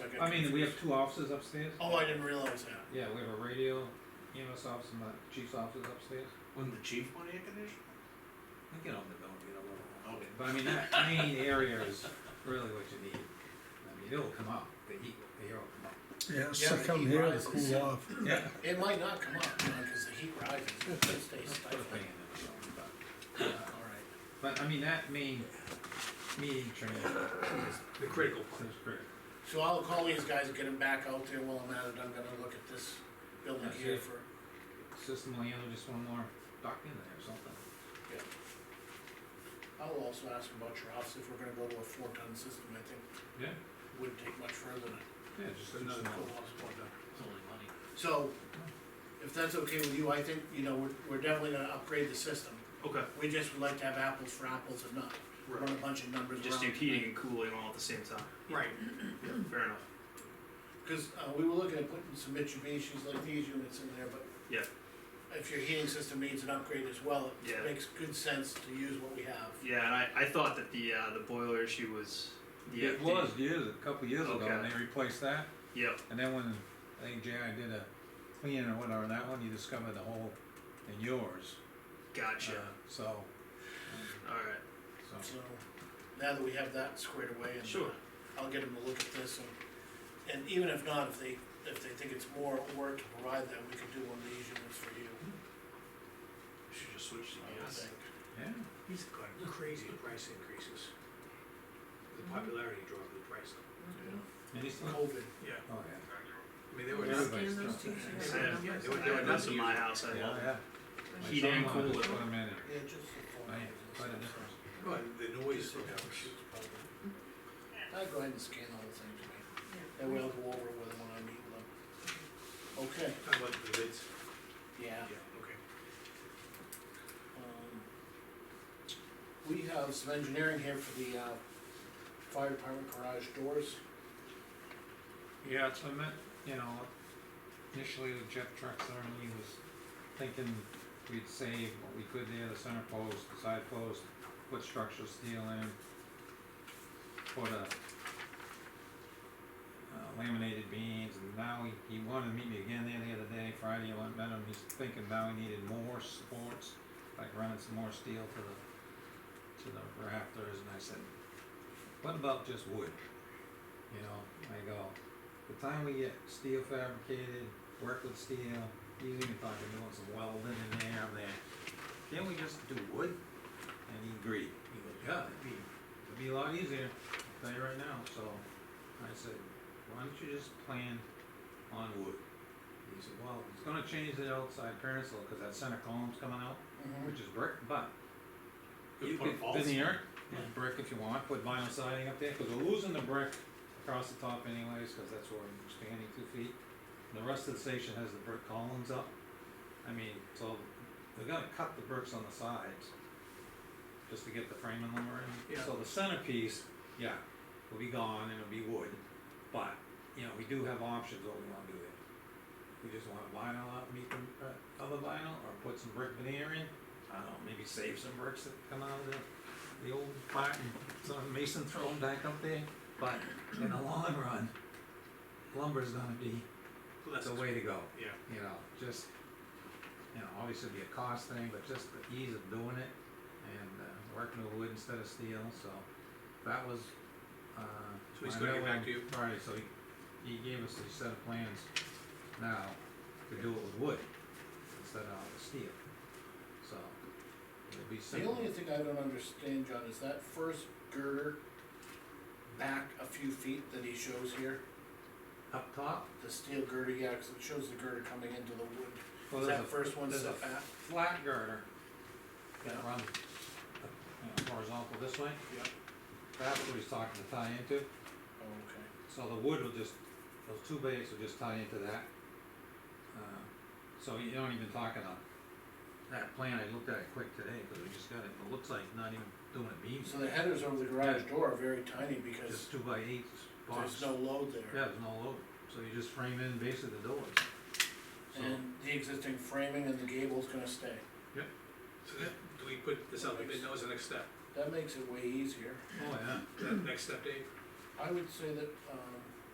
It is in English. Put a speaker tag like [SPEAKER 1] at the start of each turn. [SPEAKER 1] I mean, we have two offices upstairs.
[SPEAKER 2] Oh, I didn't realize that.
[SPEAKER 1] Yeah, we have a radio EMS office and the chief's office upstairs.
[SPEAKER 3] Wouldn't the chief want air conditioning?
[SPEAKER 1] I get on the building, you know,
[SPEAKER 3] Okay.
[SPEAKER 1] but I mean, that main area is really what you need. I mean, it'll come up, the heat, the air will come up.
[SPEAKER 4] Yeah,
[SPEAKER 2] Yeah,
[SPEAKER 4] so
[SPEAKER 2] the
[SPEAKER 4] come
[SPEAKER 2] heat
[SPEAKER 4] here and
[SPEAKER 2] rises.
[SPEAKER 4] cool off.
[SPEAKER 1] Yeah.
[SPEAKER 2] It might not come up, you know, cause the heat rises, it stays
[SPEAKER 1] Let's put a thing
[SPEAKER 2] stifling.
[SPEAKER 1] in the building, but.
[SPEAKER 2] Alright.
[SPEAKER 1] But I mean, that main meeting training is.
[SPEAKER 3] The critical
[SPEAKER 1] Is critical.
[SPEAKER 2] So I'll call these guys and get them back out there while I'm at it, I'm gonna look at this building
[SPEAKER 1] That's
[SPEAKER 2] here
[SPEAKER 1] it.
[SPEAKER 2] for,
[SPEAKER 1] System will handle just one more dock in there or something.
[SPEAKER 2] I'll also ask about your house, if we're gonna go to a four ton system, I think
[SPEAKER 1] Yeah,
[SPEAKER 2] wouldn't take much further than a
[SPEAKER 1] yeah, just another.
[SPEAKER 2] cool house four ton. So, if that's okay with you, I think, you know, we're, we're definitely gonna upgrade the system,
[SPEAKER 5] Okay,
[SPEAKER 2] we just would like to have apples for apples and not run a
[SPEAKER 5] right.
[SPEAKER 2] bunch of numbers around.
[SPEAKER 5] Just do heating and cooling all at the same time.
[SPEAKER 2] Right.
[SPEAKER 5] Yeah, fair enough.
[SPEAKER 2] Cause, uh, we were looking at putting some Mitsubishi's like these units in there, but.
[SPEAKER 5] Yeah.
[SPEAKER 2] If your heating system needs an upgrade as well,
[SPEAKER 5] Yeah.
[SPEAKER 2] it makes good sense to use what we have.
[SPEAKER 5] Yeah, and I, I thought that the uh, the boiler issue was the
[SPEAKER 1] It
[SPEAKER 5] update.
[SPEAKER 1] was years, a couple years ago, and
[SPEAKER 5] Okay.
[SPEAKER 1] they replaced that,
[SPEAKER 5] Yep.
[SPEAKER 1] and then when, I think J.I. did a cleaning or whatever, on that one, you discovered the hole in yours.
[SPEAKER 5] Gotcha.
[SPEAKER 1] Uh, So,
[SPEAKER 5] all right.
[SPEAKER 1] so,
[SPEAKER 2] So, now that we have that squared away and.
[SPEAKER 5] Sure.
[SPEAKER 2] I'll get them to look at this and, and even if not, if they, if they think it's more work to provide that, we could do one of these units for you,
[SPEAKER 5] Should just switch
[SPEAKER 2] I would think.
[SPEAKER 1] yeah,
[SPEAKER 3] He's gone crazy with price increases. The popularity drove the price up.
[SPEAKER 1] any stuff? Oh,
[SPEAKER 2] COVID,
[SPEAKER 1] yeah.
[SPEAKER 3] Yeah. I mean, they were,
[SPEAKER 1] Yeah.
[SPEAKER 3] yeah,
[SPEAKER 6] Scan those two, so you
[SPEAKER 5] Yeah.
[SPEAKER 6] have the numbers.
[SPEAKER 3] they were,
[SPEAKER 5] I
[SPEAKER 3] they were
[SPEAKER 5] have this in my house.
[SPEAKER 3] nuts.
[SPEAKER 5] I love it.
[SPEAKER 1] Yeah,
[SPEAKER 6] Right.
[SPEAKER 1] My
[SPEAKER 5] Heat and
[SPEAKER 1] son wanted to
[SPEAKER 5] cooler.
[SPEAKER 1] Put them in it,
[SPEAKER 2] yeah, just the phone.
[SPEAKER 1] oh, yeah, quite a difference.
[SPEAKER 3] No, the noise. from that was-
[SPEAKER 2] I'll go ahead and scan all the things, right?
[SPEAKER 6] Yeah.
[SPEAKER 2] and we'll go over with them when I meet with them. Okay,
[SPEAKER 3] Talking about the bids.
[SPEAKER 2] yeah,
[SPEAKER 3] okay.
[SPEAKER 2] um, we have some engineering here for the, uh, fire department garage doors.
[SPEAKER 1] Yeah, it's, I meant, you know, initially with Jeff Trexler, and he was thinking we'd save what we could there, the center post, the side post, put structural steel in, put a uh, laminated beams, and now he, he wanted to meet me again there the other day, Friday, I went and met him, he's thinking now he needed more supports, like running some more steel to the, to the rafters, and I said, what about just wood? You know, I go, the time we get steel fabricated, work with steel, he's even talking doing some welding in there, I'm there. Can't we just do wood? And he agreed. He goes, yeah, it'd be, it'd be a lot easier, I'll tell you right now, so I said, why don't you just plan on wood? He said, well, it's gonna change the outside appearance a little, cause that center column's coming out,
[SPEAKER 2] Mm.
[SPEAKER 1] which is brick, but
[SPEAKER 3] Good
[SPEAKER 1] you
[SPEAKER 3] point,
[SPEAKER 1] could
[SPEAKER 3] false.
[SPEAKER 1] veneer, with brick if you want, put vinyl siding up there, cause we're losing the brick across the top anyways, cause that's where we're expanding two feet. And the rest of the station has the brick columns up, I mean, so they're gonna cut the bricks on the sides just to get the framing lumber in.
[SPEAKER 3] Yeah.
[SPEAKER 1] So the centerpiece, yeah, will be gone and it'll be wood, but, you know, we do have options what we wanna do there. We just wanna vinyl up, meet the, uh, other vinyl, or put some brick veneer in, I don't know, maybe save some bricks that come out of the, the old part and some mason throw them back up there, but in the long run, lumber's gonna be
[SPEAKER 3] Less
[SPEAKER 1] the way to go
[SPEAKER 3] Yeah.
[SPEAKER 1] you know, just, you know, obviously it'd be a cost thing, but just the ease of doing it and uh, working with wood instead of steel, so that was, uh.
[SPEAKER 3] So he's
[SPEAKER 1] my
[SPEAKER 3] gonna get
[SPEAKER 1] memo
[SPEAKER 3] back to you?
[SPEAKER 1] Friday, so he, he gave us a set of plans now to do it with wood instead of steel, so it'll be
[SPEAKER 2] The
[SPEAKER 1] simple.
[SPEAKER 2] only thing I don't understand, John, is that first girder back a few feet that he shows here,
[SPEAKER 1] Up top,
[SPEAKER 2] the steel girder, yeah, cause it shows the girder coming into the wood.
[SPEAKER 1] well,
[SPEAKER 2] Is Oh, that
[SPEAKER 1] there's a
[SPEAKER 2] first one
[SPEAKER 1] there's a
[SPEAKER 2] set back?
[SPEAKER 1] flat girder that
[SPEAKER 2] Yeah.
[SPEAKER 1] runs, uh, you know, horizontal this way,
[SPEAKER 2] Yeah.
[SPEAKER 1] that's what he's talking to tie into.
[SPEAKER 2] Oh, okay.
[SPEAKER 1] So the wood will just, those two bays will just tie into that. Uh, So you don't even talking on that plan, I looked at it quick today, because we just got it, it looks like not even doing a beam,
[SPEAKER 2] So the headers over the garage door are very tiny because
[SPEAKER 1] just two by eights box.
[SPEAKER 2] there's no load
[SPEAKER 1] Yeah,
[SPEAKER 2] there.
[SPEAKER 1] there's no load, so you just frame in basically the doors. So,
[SPEAKER 2] And the existing framing and the gable's gonna stay.
[SPEAKER 3] So that, do we put this out, the bid? that was the next step,
[SPEAKER 2] That makes it way easier.
[SPEAKER 1] oh yeah,
[SPEAKER 3] Is that the next step, Dave?
[SPEAKER 2] I would say that, um,